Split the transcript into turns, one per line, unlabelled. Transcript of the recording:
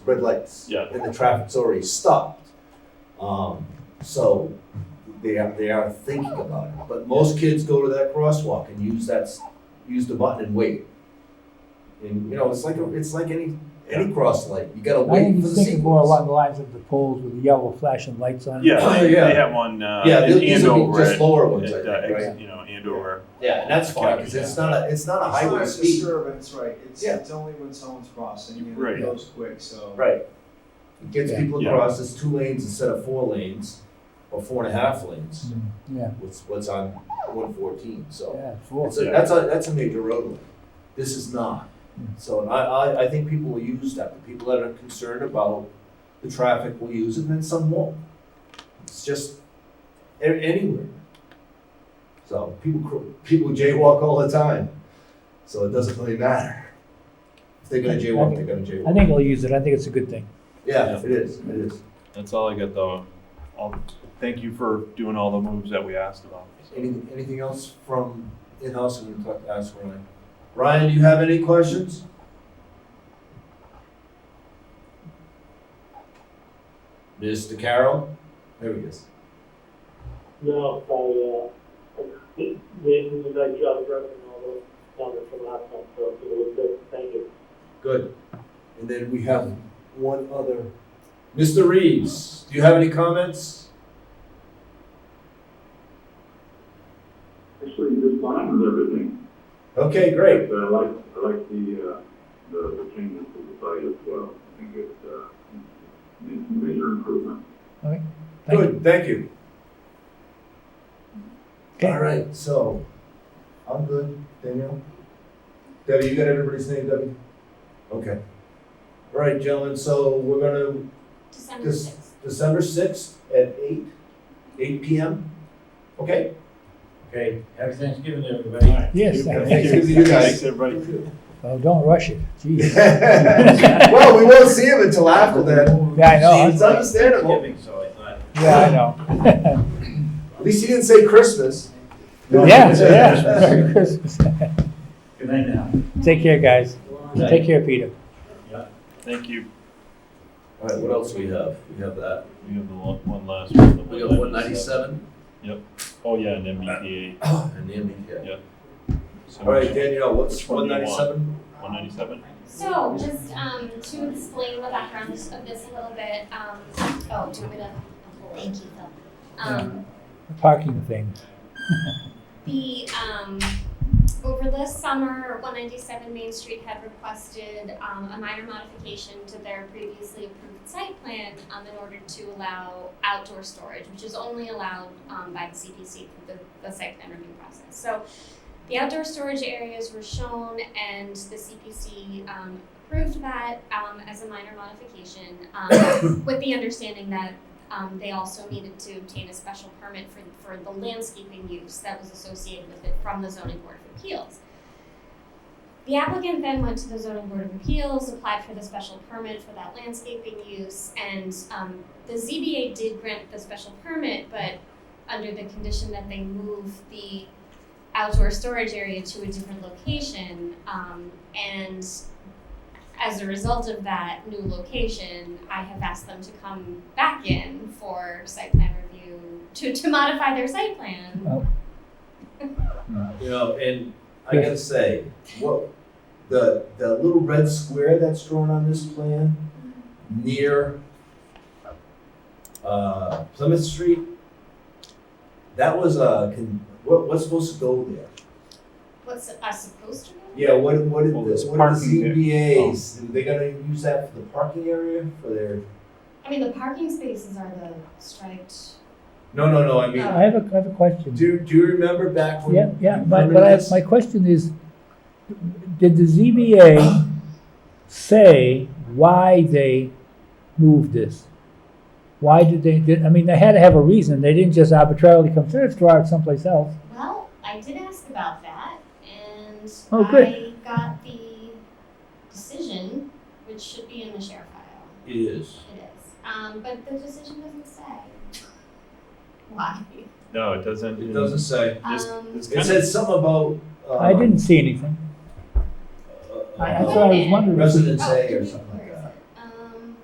red lights.
Yeah.
And the traffic's already stopped. Um, so they are, they are thinking about it. But most kids go to that crosswalk and use that, s- use the button and wait. And, you know, it's like, a- it's like any, any cross light, you gotta
I
wait for
was
the
thinking more
sequence.
along the lines of the poles with the yellow flashing lights on. it.
Yeah,
Oh,
they,
yeah.
they have one uh,
Yeah,
in
these will be
Andover.
just
At,
lower ones,
at,
I
uh,
think, right?
ex- You know, Andover.
Yeah, and that's fine, cause it's not a, it's not a
It's not
highway
a
speed.
disturbance, right, it's,
Yeah.
it's only when someone's crossing, and
Right.
it goes quick, so.
Right. It gets
Yeah.
people
Yeah.
across, it's two lanes instead of four lanes, or four and a half lanes.
Yeah,
what's what's on one fourteen, so.
yeah, four.
It's a,
Yeah.
that's a, that's a major roadway, this is not.
Hmm.
So and I, I, I think people will use that, the people that are concerned about the traffic will use it, and then some won't. It's just a- anywhere. So people, cr- people jaywalk all the time, so it doesn't really matter. If they're gonna jaywalk, they're gonna
I
jaywalk.
think I'll use it. I think it's a good thing.
Yeah, it is, it is.
That's all I got though. I'll, thank you for doing all the moves that we asked about.
Anything, anything else from in-house and we'll talk- ask Ryan? Ryan, do you have any questions? Mr. Carroll? There he is.
No, I, uh, they did a nice job of repping all those comments from last time, so it was good, thank you.
Good. And then we have one other. Mr. Reeves, do you have any comments?
Actually, just fine with everything.
Okay, great.
But I like, I like the, uh, the, the changes to the site as well. I think it's, uh, it's a major improvement.
Thank you.
Good, thank you.
Okay.
All right, so I'm good. Danielle? Debbie, you got everybody's name, Debbie? Okay. All right, gentlemen, so we're gonna
December
This-
sixth.
December sixth at eight, eight PM, okay?
Okay, happy Thanksgiving, everybody.
Yes,
Thank
thank
you.
you.
you guys.
Thanks, everybody.
Oh, don't rush it. Jeez.
Well, we won't see him until after then.
Yeah, I know.
It's understandable,
Thanksgiving, so I thought.
Yeah, I know.
at least he didn't say Christmas.
Yeah, yeah. Merry Christmas.
Good night now.
Take care, guys. Take care, Peter.
Thank you.
All right, what else we have? We have that,
We have the lo- one last one. the
we have one
197.
ninety-seven
Oh yeah, an MBTA.
and the MBTA.
Yeah. So
All right, Danielle, what's
Which
one
one do you
ninety-seven?
197.
So just um, to explain the background of this a little bit, um, oh, do you want me to? Thank you, Phil. Um,
Parking thing.
The, um, over the summer, one ninety-seven Main Street had requested, um, a minor modification to their previously approved site plan, um, in order to allow outdoor storage, which is only allowed, um, by the CPC through the, the site plan review process. So the outdoor storage areas were shown and the CPC, um, approved that, um, as a minor modification, um, with the understanding that um, they also needed to obtain a special permit for, for the landscaping use that was associated with it from the zoning board of appeals. The applicant then went to the zoning board of appeals, applied for the special permit for that landscaping use, and, um, the ZBA did grant the special permit, but under the condition that they move the outdoor storage area to a different location, um, and as a result of that new location, I have asked them to come back in for site plan review to, to modify their site plan.
You know, and I gotta say, what, the, the little red square that's drawn on this plan near uh, Plymouth Street, that was a, con- what, what's supposed to go there?
What's it- us supposed to do?
Yeah, what, what did
Well,
the,
there's
what did
parking
the
there. Oh.
ZBAs, they gonna use that for the parking area for their?
I mean, the parking spaces are the striped.
No, no, no, I mean,
I have a, I have a question.
do, do you remember back when?
Yeah, yeah,
you
but,
remember
but I,
this?
my question is, did the ZBA say why they moved this? Why did they, did, I mean, they had to have a reason, they didn't just arbitrarily come, let's throw it someplace else.
Well, I did ask about that and
Oh, good.
I got the decision, which should be in the share file.
It is.
It is. Um, but the decision doesn't say why.
No, it doesn't.
It doesn't say.
This,
Um,
this
It
kind
said something about.
I
um,
didn't see anything,
uh,
I, that's what I was wondering.
Residence
Oh, Um,
A
did
or
we-
something like